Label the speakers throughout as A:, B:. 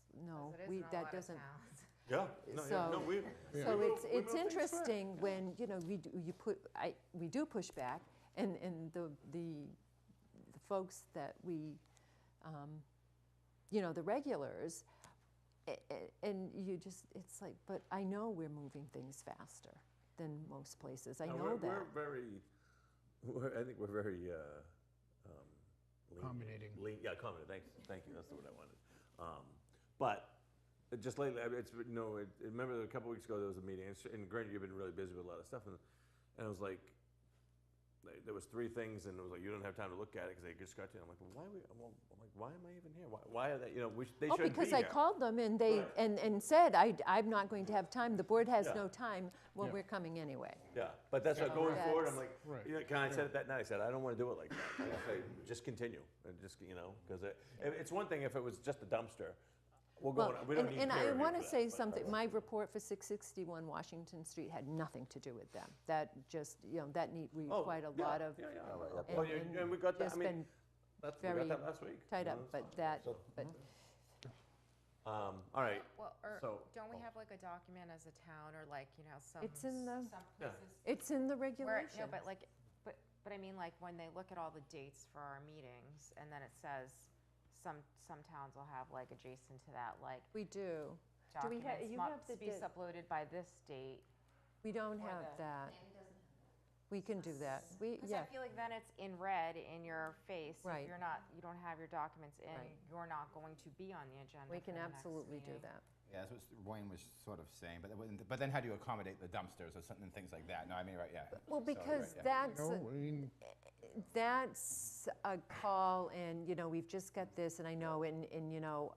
A: It is
B: we,
A: in a lot
B: that
A: of
B: doesn't.
A: towns.
C: Yeah, no, yeah, no,
B: So-
C: we. we
B: So
C: will-
B: it's,
C: we
B: it's
C: will fix that.
B: interesting when, you know, we, do- you put, I, we do push back, and, and the, the the folks that we, um, you know, the regulars, a- a- and you just, it's like, but I know we're moving things faster than most places, I
C: No,
B: know
C: we're-
B: that.
C: We're very, we're, I think we're very, uh, um. lean-
D: Accommodating.
C: lean- yeah, accommodating, thanks, thank you, that's the word I wanted. Um, but, uh, just lately, I mean, it's, been- no, it, remember a couple weeks ago, there was a meeting, and s- and granted, you've been really busy with a lot of stuff, and, and I was like, like, there was three things, and it was like, you don't have time to look at it, because they just got to, you. I'm like, well, why are we, well, I'm like, why am I even here? Why, why are they, you know, we, sh- they
B: Oh,
C: shouldn't be
B: because I
C: here.
B: called them and they,
C: Right.
B: and, and said, I, I'm not going to have time, the board has
C: Yeah.
B: no time, well,
D: Yeah.
B: we're coming anyway.
C: Yeah, but that's what going forward, I'm like,
D: Right.
C: you know, can I said it that night, I said, I don't wanna do it like that. I just say, Just continue, and just, you know, cause it, it- it's one thing if it was just a dumpster, we're
B: Well,
C: going, we don't
B: and,
C: need
B: and I
C: peer review
B: want to
C: for that,
B: say
C: but-
B: something, my report for 661 Washington Street had nothing to do with them. That just, you know, that need, we
C: Oh,
B: quite a
C: yeah,
B: lot of,
C: yeah, Oh, yeah.
B: and-
C: Well, you-
B: and
C: And we got that, I
B: just
C: mean,
B: been
C: that's, we got
B: very
C: that last week.
B: tied
C: you know,
B: up,
C: it's
B: but that,
C: mm-hmm.
B: but
C: fine. Um, all right,
A: Well, or
C: So-
A: don't we
C: oh.
A: have like a document as a town or like, you know, some.
B: It's in the-
A: Some
C: Yeah.
A: places.
B: it's in the
A: Where, no,
B: regulation.
A: but like, but, but I mean, like when they look at all the dates for our meetings and then it says some, some towns will have like adjacent to that, like
B: We do. Do we have,
A: documents
B: you have the,
A: must be
B: di-
A: uploaded by this date.
B: we don't
A: or
B: have
A: the-
B: that. We can do that. We,
A: Because I
B: yeah,
A: feel like then it's in red in your face.
B: Right.
A: If you're not, you don't have your documents in,
B: Right.
A: you're not going to be on the agenda.
B: we
A: for
B: can
A: the next
B: absolutely do
A: meeting.
B: that.
E: Yeah, that's what Wayne was sort of saying, but, then- but then how do you accommodate the dumpsters or something, things like that? No, I mean, right, yeah.
B: Well,
E: So, right,
B: because
E: yeah.
B: that's,
D: No, I mean,
B: that's a call and, you know, we've just got this and I know, and, and, you know,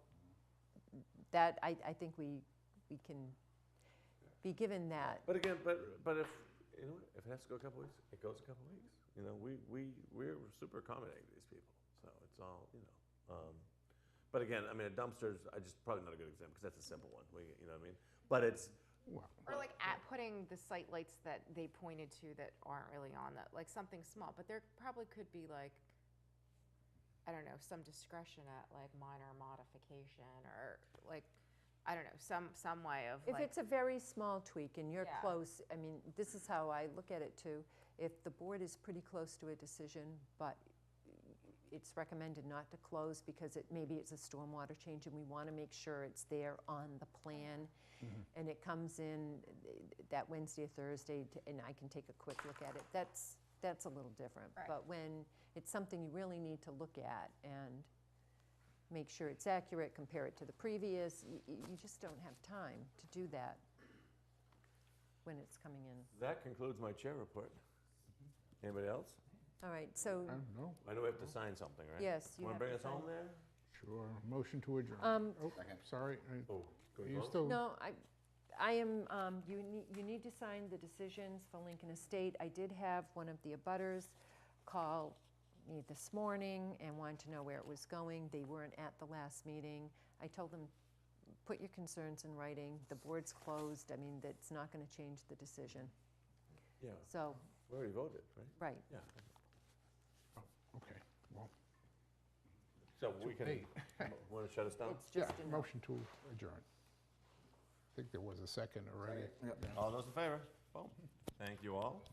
B: that, I, I think we, we can be given that.
C: but again, but, but if, you know, if it has to go a couple weeks, it goes a couple weeks. You know, we, we, we're super accommodating to these people, so it's all, you know. um, But again, I mean, a dumpster's, I just, probably not a good example, because that's a simple one, we, you know what I mean? But it's,
D: well,
A: Or like at putting the site lights that they pointed to that aren't really on that, like something small, but there probably could be like, I don't know, some discretion at like minor modification or like, I don't know, some, some way of
B: If
A: like.
B: it's a very small tweak and you're
A: Yeah.
B: close, I mean, this is how I look at it too. If the board is pretty close to a decision, but it's recommended not to close because it, maybe it's a stormwater change and we want to make sure it's there on the plan.
A: Mm-hmm.
B: And it comes in eh, that Wednesday or Thursday to- and I can take a quick look at it. That's, that's a little different.
A: Right.
B: But when it's something you really need to look at and make sure it's accurate, compare it to the previous. You, you just don't have time to do that when it's coming in.
C: That concludes my chair report.
B: Mm-hmm.
C: Anybody else?
B: All right,
D: I
B: so,
D: don't know,
C: I know we have to sign something, right?
B: Yes, you
C: Want
B: have
C: to bring
B: to
C: us home
B: sign.
C: there?
D: sure, motion to adjourn.
B: Um,
D: Oh,
E: Second.
D: sorry, I-
C: Oh,
D: are
C: can we
D: you
C: vote?
D: still?
B: no, I, I am, um, you need, you need to sign the decisions for Lincoln Estate. I did have one of the abutters call me this morning and wanted to know where it was going. They weren't at the last meeting. I told them, put your concerns in writing. The board's closed. I mean, that's not gonna change the decision.
C: Yeah,
B: So,
C: we already voted, right?
B: right.
C: Yeah.
D: Oh, Okay, well,
C: So we can, want to shut us down?
B: It's
D: yeah,
B: just a no.
D: motion to adjourn. I think there was a second already.
E: Yep.
C: All those in favor? Boom. Thank you all.